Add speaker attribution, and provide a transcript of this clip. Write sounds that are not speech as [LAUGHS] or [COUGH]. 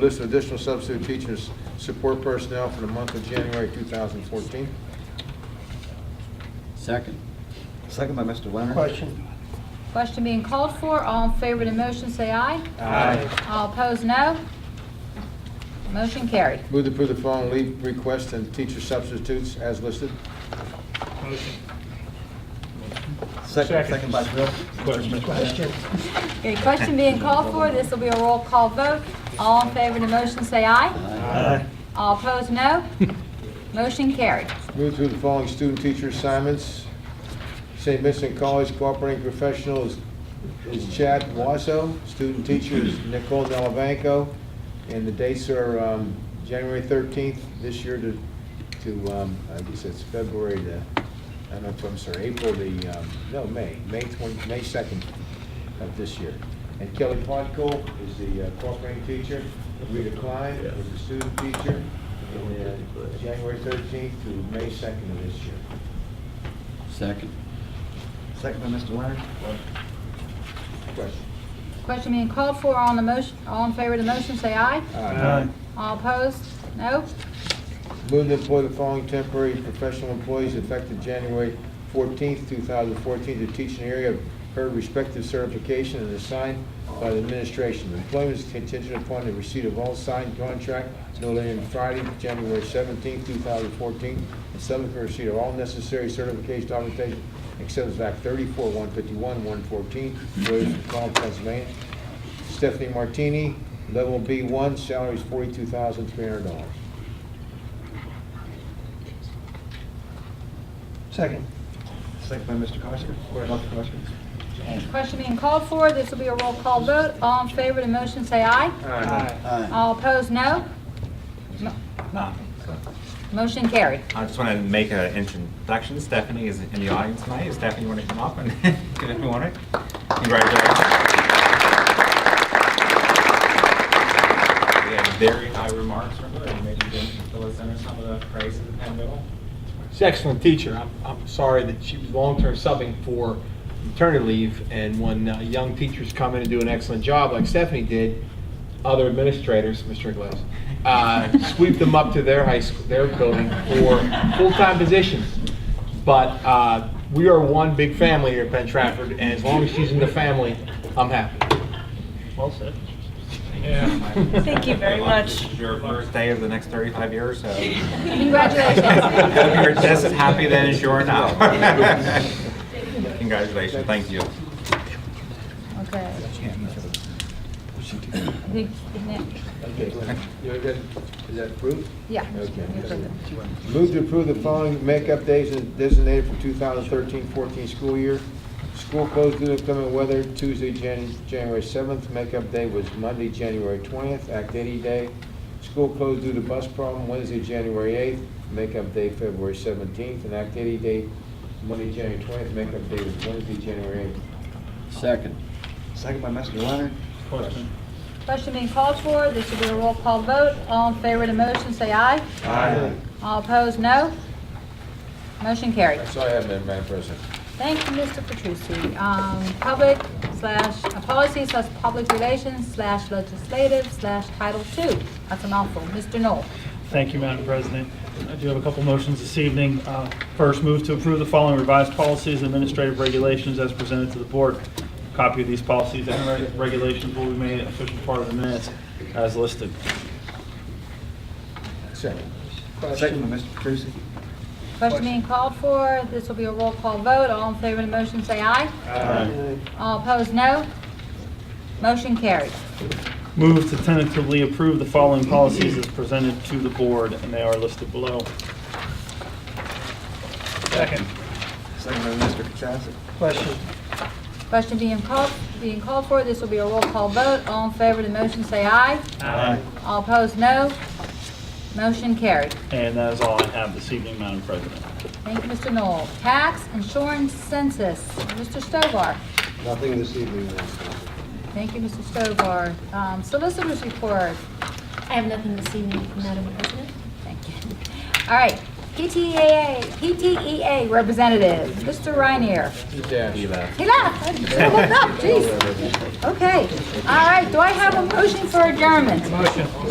Speaker 1: List of additional substitute teachers, support personnel for the month of January 2014.
Speaker 2: Second.
Speaker 3: Second by Mr. Leonard.
Speaker 4: Question.
Speaker 5: Question being called for, all in favor of the motion, say aye.
Speaker 4: Aye.
Speaker 5: All opposed, no. Motion carried.
Speaker 1: Move to approve the following leave requests and teacher substitutes as listed.
Speaker 4: Motion.
Speaker 3: Second,
Speaker 4: Second.
Speaker 3: second by Bill.
Speaker 4: Question.
Speaker 5: Okay, question being called for, this will be a roll call vote. All in favor of the motion, say aye.
Speaker 4: Aye.
Speaker 5: All opposed, no. Motion carried.
Speaker 1: Move through the following student teacher assignments. St. Vincent College cooperating professional is is Chad Wasso, student teacher is Nicole Delavanco, and the dates are um, January 13th this year to, to, um, I guess it's February the, I don't know, I'm sorry, April the, um, no, May, May 20, May 2nd of this year. And Kelly Podkol is the uh, cooperating teacher, Rita Klein is the student teacher, and uh, January 13th to May 2nd of this year.
Speaker 2: Second.
Speaker 3: Second by Mr. Leonard.
Speaker 1: Question?
Speaker 5: Question being called for, all in the motion, all in favor of the motion, say aye.
Speaker 1: Aye.
Speaker 5: All opposed, no.
Speaker 1: Move to employ the following temporary professional employees effective January fourteenth, two thousand fourteen, to teach in the area of her respective certification and assigned by the administration. Employment is contingent upon the receipt of all signed contract no later than Friday, January seventeenth, two thousand fourteen, and subsequent receipt of all necessary certification documentation, except as Act thirty-four, one fifty-one, one fourteen, Williams, McCall, Pennsylvania. Stephanie Martini, level B one, salary is forty-two thousand, three hundred dollars.
Speaker 4: Second.
Speaker 3: Second by Mr. Kosker. Dr. Kosker.
Speaker 5: Okay, Question being called for, this will be a roll call vote. All in favor of the motion, say aye.
Speaker 2: Aye.
Speaker 5: All opposed, no. Motion carried.
Speaker 6: I just want to make an introduction. Stephanie is in the audience tonight. Stephanie, you want to come up and [LAUGHS] give everyone a congratulations? We had very high remarks from her, and maybe didn't fill us in on some of the praise of the Penn Middle.
Speaker 7: She's an excellent teacher. I'm, I'm sorry that she was long-term subbing for maternity leave, and when uh, young teachers come in and do an excellent job, like Stephanie did, other administrators, Mr. Glass, uh, sweep them up to their high school, their building for full-time positions. But uh, we are one big family here at Penn Trafford, and as long as she's in the family, I'm happy. Well said.
Speaker 8: Thank you very
Speaker 6: Good luck.
Speaker 8: much.
Speaker 6: This is your first day of the next 35 years, so hope
Speaker 5: Congratulations.
Speaker 6: [LAUGHS] you're just as [LAUGHS] happy then as you
Speaker 8: [LAUGHS]
Speaker 6: are now. Congratulations. Thank you.
Speaker 5: Okay. I think-
Speaker 1: Okay, you're good. Is that approved?
Speaker 5: Yeah.
Speaker 1: Okay. Move to approve the following makeup days as designated for 2013-14 school year. School closed due to inclement weather Tuesday, Jan- January 7th. Makeup day was Monday, January 20th, Act 80 day. School closed due to bus problem Wednesday, January 8th. Makeup day February 17th, and Act 80 day Monday, January 20th. Makeup day was Wednesday, January 8th.
Speaker 2: Second.
Speaker 3: Second by Mr. Leonard.
Speaker 5: Question being called for, this will be a roll call vote. All in favor of the motion, say aye.
Speaker 3: Aye.
Speaker 5: All opposed, no. Motion carried.
Speaker 1: That's all I have, Madam President.
Speaker 5: Thank you, Mr. Petrucci. Um, Public slash, uh, policy slash public relations slash legislative slash Title II. That's a mouthful. Mr. Knoll.
Speaker 9: Thank you, Madam President. I do have a couple motions this evening. Uh, First, move to approve the following revised policies and administrative regulations as presented to the board. Copy of these policies and reg- regulations will be made an official part of the minutes as listed.
Speaker 1: Second.
Speaker 3: Second by Mr. Petrusi.
Speaker 5: Question being called for, this will be a roll call vote. All in favor of the motion, say aye. All opposed, no. Motion carried.
Speaker 9: Move to tentatively approve the following policies as presented to the board, and they are listed below.
Speaker 4: Second.
Speaker 3: Second by Mr. Kachasik.
Speaker 4: Question.
Speaker 5: Question being called, being called for, this will be a roll call vote. All in favor of the motion, say aye.
Speaker 9: Aye.
Speaker 5: All opposed, no. Motion carried.
Speaker 9: And that is all I have this evening, Madam President.
Speaker 5: Thank you, Mr. Knoll. Tax, insurance, census. Mr. Stovar.
Speaker 3: Nothing this evening,
Speaker 5: Thank you, Mr. Stovar. Um, Solicitors report.
Speaker 10: I have nothing this evening, Madam President.
Speaker 5: Thank you. All right. E PTAA, PTEA E representative, Mr. Reinier.
Speaker 1: Mr. Dash.
Speaker 6: Be back.
Speaker 5: He left. Oh, I should have looked up, jeez. Okay. All right. Do I have a motion for adjournment?